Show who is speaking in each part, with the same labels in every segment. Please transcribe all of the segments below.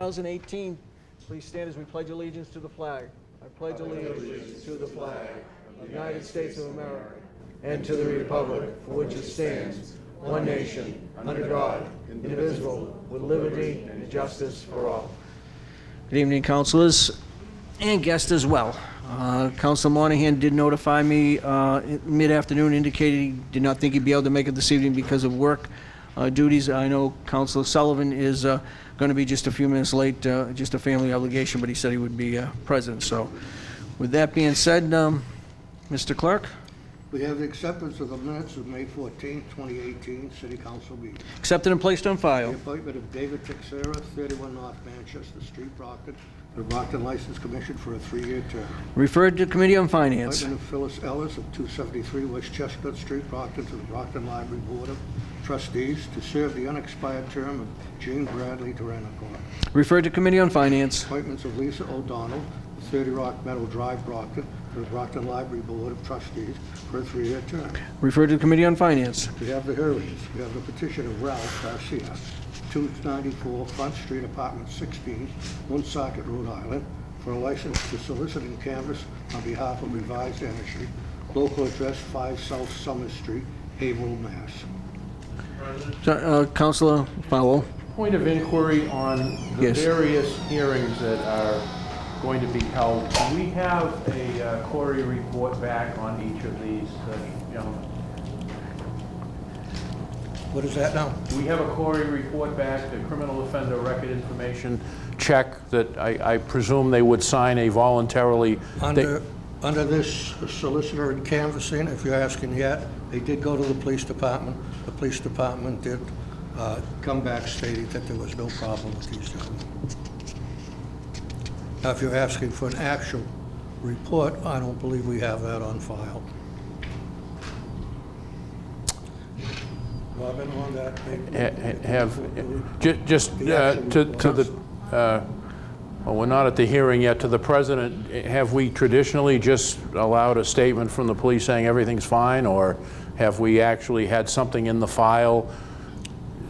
Speaker 1: 2018. Please stand as we pledge allegiance to the flag. I pledge allegiance to the flag of the United States of America and to the republic for which it stands, one nation, under God, indivisible, with liberty and justice for all. Good evening, councilors and guests as well. Uh, Council Monahan did notify me uh, in mid-afternoon, indicated he did not think he'd be able to make it this evening because of work uh, duties. I know Council Sullivan is going to be just a few minutes late, uh, just a family obligation, but he said he would be uh, present. So with that being said, um, Mr. Clerk,
Speaker 2: We have the acceptance of the minutes of May 14, 2018, City Council meeting.
Speaker 1: accepted and placed on
Speaker 2: The
Speaker 1: file.
Speaker 2: appointment of David Texera, 31 North Manchester Street, Brockton, to the Brockton License Commission for a three-year term.
Speaker 1: Referred to Committee on Finance.
Speaker 2: Appointment of Phyllis Ellis of 273 West Chestnut Street, Brockton, to the Brockton Library Board of Trustees to serve the unexpired term of Jean Bradley Terranacor.
Speaker 1: Referred to Committee on Finance.
Speaker 2: Appointments of Lisa O'Donnell, 30 Rock Meadow Drive, Brockton, to the Brockton Library Board of Trustees for a three-year term.
Speaker 1: Referred to Committee on Finance.
Speaker 2: We have the hearings. We have the petition of Ralph Garcia, 294 Front Street, Apartment 16, Woonsocket, Rhode Island, for a license to solicit and canvass on behalf of Revised Energy, local address 5 South Summer Street, Haverhill, Mass.
Speaker 1: So, uh, Councilor Powell.
Speaker 3: Point of inquiry on the
Speaker 1: Yes.
Speaker 3: various hearings that are going to be held. Do we have a uh, Corey report back on each of these, uh, gentlemen?
Speaker 2: What is that now?
Speaker 3: Do we have a Corey report back, the criminal offender record information check that I I presume they would sign a voluntarily?
Speaker 2: Under, under this solicitor and canvassing, if you're asking yet, they did go to the police department. The police department did uh, come back stating that there was no problem with these gentlemen. Now, if you're asking for an actual report, I don't believe we have that on file. Robin, on that?
Speaker 3: ha- ha- have, ju- just uh, to to the, uh, well, we're not at the hearing yet, to the president, have we traditionally just allowed a statement from the police saying everything's fine, or have we actually had something in the file?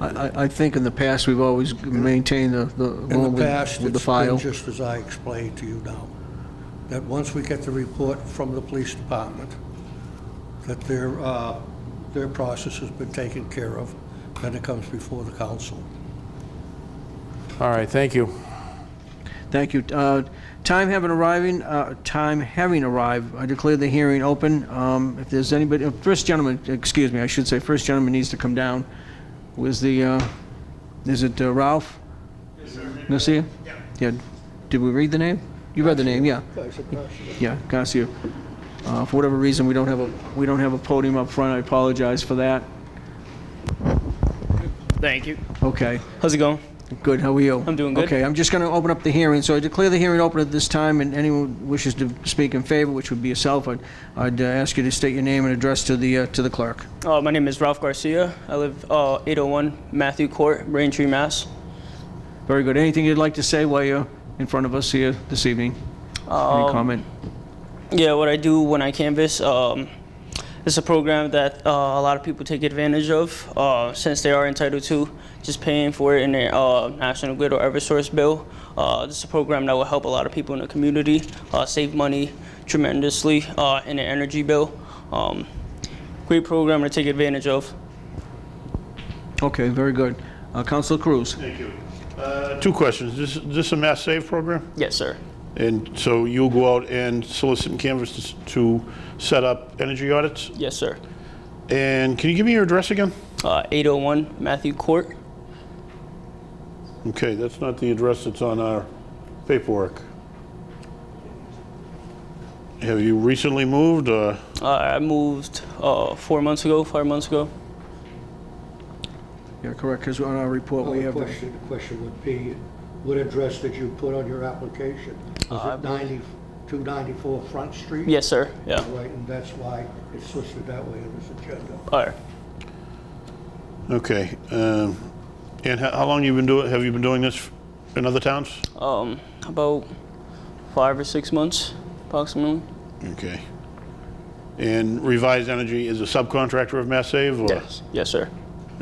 Speaker 1: I, I- I think in the past, we've always maintained the, the
Speaker 2: In
Speaker 1: one
Speaker 2: the
Speaker 1: with
Speaker 2: past,
Speaker 1: with the
Speaker 2: it's
Speaker 1: file.
Speaker 2: been just as I explained to you now, that once we get the report from the police department, that their, uh, their process has been taken care of, then it comes before the council.
Speaker 3: All right, thank you.
Speaker 1: Thank you. Uh, Time having arriving, uh, time having arrived, I declare the hearing open. Um, If there's anybody, uh, first gentleman, excuse me, I should say, first gentleman needs to come down. Was the, uh, is it uh, Ralph? Yes, sir. Nacia? Yeah. Did we read the name? You read the name, yeah. Yeah, Garcia. Uh, For whatever reason, we don't have a, we don't have a podium up front. I apologize for that.
Speaker 4: Thank you.
Speaker 1: Okay.
Speaker 4: How's it going?
Speaker 1: Good, how are you?
Speaker 4: I'm doing good.
Speaker 1: Okay, I'm just going to open up the hearing. So I declare the hearing open at this time, and anyone wishes to speak in favor, which would be yourself, I'd, I'd uh, ask you to state your name and address to the, uh, to the clerk.
Speaker 4: Uh, my name is Ralph Garcia. I live uh, 801 Matthew Court, Braintree, Mass.
Speaker 1: Very good. Anything you'd like to say while you're in front of us here this evening? Any comment?
Speaker 4: Yeah, what I do when I canvas, um, it's a program that uh, a lot of people take advantage of uh, since they are entitled to just paying for it in their uh, National Grid or Eversource bill. Uh, this is a program that will help a lot of people in the community uh, save money tremendously uh, in their energy bill. Um, great program to take advantage of.
Speaker 1: Okay, very good. Uh, Counselor Cruz?
Speaker 5: Thank you. Uh, Two questions. This, this a mass save program?
Speaker 4: Yes, sir.
Speaker 5: And so you'll go out and solicit and canvas to s- to set up energy audits?
Speaker 4: Yes, sir.
Speaker 5: And can you give me your address again?
Speaker 4: Uh, 801 Matthew Court,
Speaker 5: Okay, that's not the address that's on our paperwork. Have you recently moved, or,
Speaker 4: Uh, I moved uh, four months ago, five months ago.
Speaker 1: Yeah, correct, because on our report, we
Speaker 2: The
Speaker 1: have the...
Speaker 2: Oh, question, the question would be, what address did you put on your application? Was it 90, 294 Front Street?
Speaker 4: Yes, sir. Yeah.
Speaker 2: Right, and that's why it's listed that way in this agenda.
Speaker 4: All right.
Speaker 5: okay. um, And how, how long you been doing, have you been doing this in other towns?
Speaker 4: Um, about five or six months, approximately.
Speaker 5: Okay. And Revised Energy is a subcontractor of Mass Save, or?
Speaker 4: Yes, sir.